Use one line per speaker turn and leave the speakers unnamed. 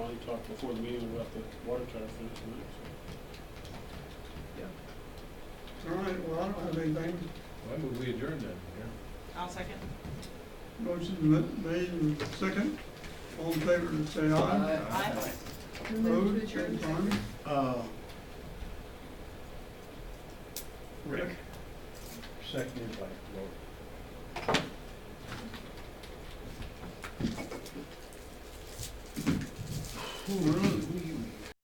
talked before the meeting about the water tower for this week, so.
All right, well, I don't have anything.
Why would we adjourn then? Mayor?
I'll second.
Motion ma- made and second. All in favor, say aye.
Aye.
Opposed, same sign.
Uh, Rick, seconded by Lori.